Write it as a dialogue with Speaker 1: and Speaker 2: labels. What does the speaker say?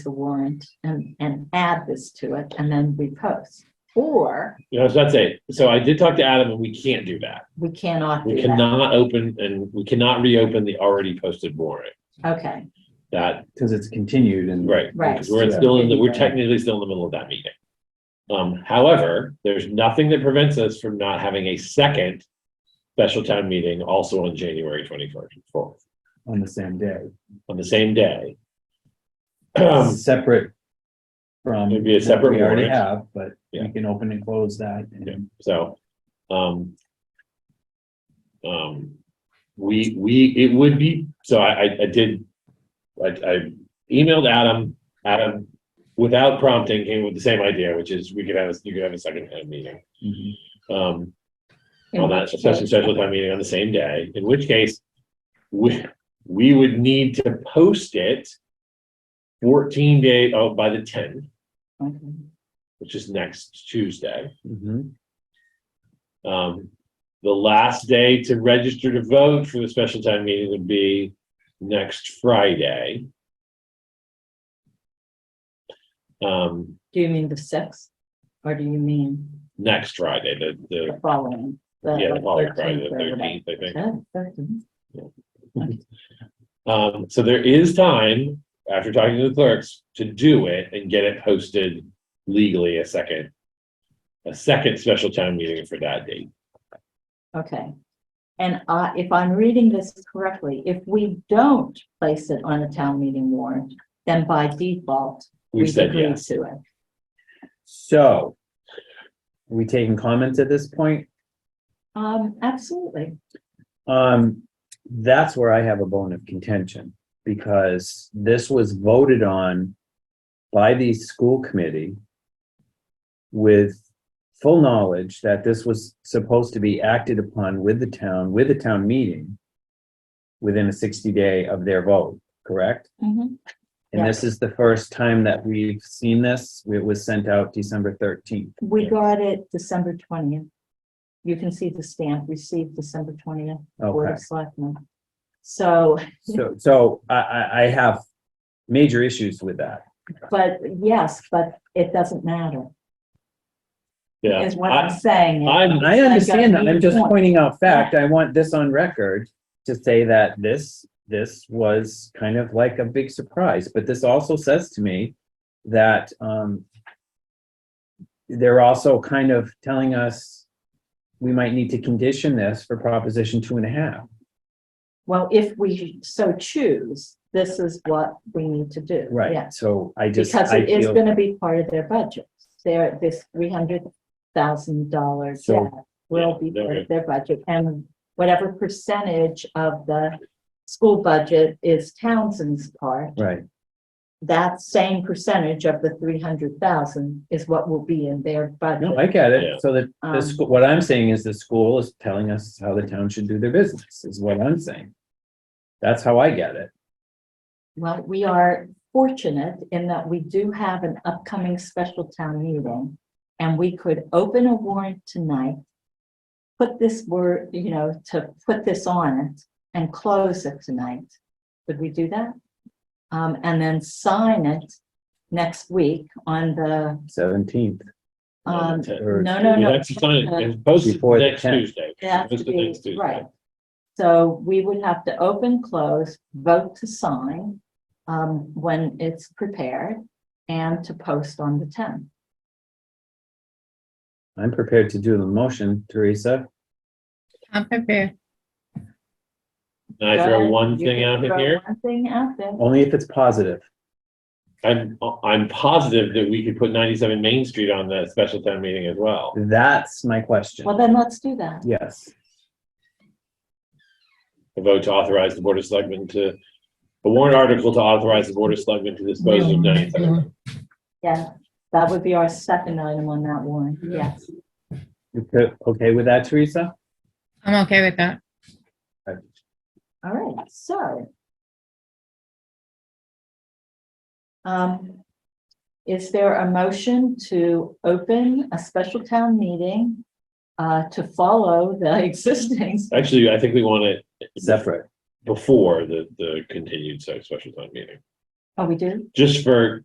Speaker 1: the warrant and, and add this to it and then we post. Or
Speaker 2: You know, I was about to say, so I did talk to Adam and we can't do that.
Speaker 1: we cannot
Speaker 2: We
Speaker 1: do that.
Speaker 2: cannot open and we cannot reopen the already posted warrant.
Speaker 1: Okay,
Speaker 2: That,
Speaker 3: Because it's continued and.
Speaker 2: right.
Speaker 1: Right.
Speaker 2: because We're still in the, we're technically still in the middle of that meeting. Um, however, there's nothing that prevents us from not having a second special town meeting also on January twenty-first, fourth,
Speaker 3: On the same day,
Speaker 2: on the same day. Um,
Speaker 3: separate from.
Speaker 2: It'd be a separate
Speaker 3: We already
Speaker 2: warrant.
Speaker 3: have, but
Speaker 2: Yeah.
Speaker 3: we can open and close that. and-
Speaker 2: Yeah. So, um, um, we, we, it would be, so I, I, I did, I, I emailed Adam, Adam, without prompting, came with the same idea, which is we could have, a- you could have a second town meeting.
Speaker 3: Mhm.
Speaker 2: Um,
Speaker 1: In
Speaker 2: on that
Speaker 1: which
Speaker 2: special,
Speaker 1: case-
Speaker 2: special town meeting on the same day, in which case, we, we would need to post it fourteen day, oh, by the tenth,
Speaker 1: okay.
Speaker 2: which is next Tuesday.
Speaker 3: Mhm.
Speaker 2: Um, the last day to register to vote for the special time meeting would be next Friday. Um,
Speaker 1: Do you mean the sixth? Or do you mean
Speaker 2: next Friday, the,
Speaker 1: the
Speaker 2: the,
Speaker 1: following?
Speaker 2: yeah, the
Speaker 1: like,
Speaker 2: following
Speaker 1: 13th
Speaker 2: Friday, the
Speaker 1: or whatever?
Speaker 2: thirteenth, I think.
Speaker 1: Oh, 13th.
Speaker 2: Um, so there is time, after talking to the clerks, to do it and get it posted legally a second. A second special time meeting for that date.
Speaker 1: Okay. And I, if I'm reading this correctly, if we don't place it on a town meeting warrant, then by default,
Speaker 2: We've
Speaker 1: we
Speaker 2: said
Speaker 1: agree
Speaker 2: yes.
Speaker 1: to it.
Speaker 3: So. are We taking comments at this point?
Speaker 1: Um, absolutely.
Speaker 3: Um, that's where I have a bone of contention because this was voted on by the school committee with full knowledge that this was supposed to be acted upon with the town, with the town meeting within a sixty day of their vote, correct?
Speaker 1: Mhm.
Speaker 3: And this is the first time that we've seen this. It was sent out December thirteenth.
Speaker 1: We got it December twentieth. You can see the stamp received December twentieth, Board
Speaker 3: Okay.
Speaker 1: of Selectmen. So,
Speaker 3: So, so I, I, I have major issues with that.
Speaker 1: but yes, but it doesn't matter,
Speaker 2: Yeah.
Speaker 1: is what
Speaker 2: I-
Speaker 1: I'm saying.
Speaker 2: I'm,
Speaker 3: I
Speaker 1: got
Speaker 3: understand that. I'm just
Speaker 1: eight points.
Speaker 3: pointing out fact. I want this on record to say that this, this was kind of like a big surprise, but this also says to me that, um, they're also kind of telling us we might need to condition this for proposition two and a half.
Speaker 1: Well, if we so choose, this is what we need to do. Yes.
Speaker 3: Right, so I just,
Speaker 1: Because
Speaker 3: I
Speaker 1: it is
Speaker 3: feel,
Speaker 1: gonna be part of their budget. Their, this three hundred thousand dollar
Speaker 3: So-
Speaker 1: debt will be
Speaker 2: Yeah,
Speaker 1: part
Speaker 2: okay.
Speaker 1: of their budget, and whatever percentage of the school budget is Townsend's part,
Speaker 3: right,
Speaker 1: that same percentage of the three hundred thousand is what will be in their budget.
Speaker 3: no, I get
Speaker 2: Yeah.
Speaker 3: it. So that the
Speaker 1: Um,
Speaker 3: school, what I'm saying is the school is telling us how the town should do their business, is what I'm saying. That's how I get it.
Speaker 1: Well, we are fortunate in that we do have an upcoming special town meeting. And we could open a warrant tonight. Put this word, you know, to put this on it and close it tonight. Could we do that? Um, and then sign it next week on the,
Speaker 3: Seventeenth.
Speaker 2: on
Speaker 1: um,
Speaker 2: the 10th.
Speaker 3: or-
Speaker 1: no, no,
Speaker 2: We
Speaker 1: no.
Speaker 2: have to sign it and post it
Speaker 3: Before the
Speaker 2: next
Speaker 3: 10th.
Speaker 2: Tuesday.
Speaker 1: It has
Speaker 2: Post
Speaker 1: to
Speaker 2: it
Speaker 1: be,
Speaker 2: next Tuesday.
Speaker 1: right. So we would have to open, close, vote to sign, um, when it's prepared and to post on the tenth.
Speaker 3: I'm prepared to do the motion, Teresa.
Speaker 4: I'm prepared.
Speaker 2: And I
Speaker 1: Go
Speaker 2: throw
Speaker 1: ahead.
Speaker 2: one
Speaker 1: You
Speaker 2: thing
Speaker 1: can
Speaker 2: out in
Speaker 1: throw
Speaker 2: here. Oh.
Speaker 1: One thing out there.
Speaker 3: Only if it's positive.
Speaker 2: I'm, I'm positive that we could put ninety-seven Main Street on the special town meeting as well.
Speaker 3: That's my question.
Speaker 1: Well, then let's do that.
Speaker 3: Yes.
Speaker 2: A vote to authorize the Board of Selectmen to, a warrant article to authorize the Board of Selectmen to dispose
Speaker 1: Mm-hmm.
Speaker 2: of ninety-seven.
Speaker 1: Yeah, that would be our second item on that one. Yes.
Speaker 3: You co- Okay with that, Teresa?
Speaker 4: I'm okay with that.
Speaker 1: All right, so. Um, is there a motion to open a special town meeting uh, to follow the existing?
Speaker 2: Actually, I think we want it
Speaker 3: Separate.
Speaker 2: before the, the continued se- special town meeting,
Speaker 1: Oh, we do?
Speaker 2: just for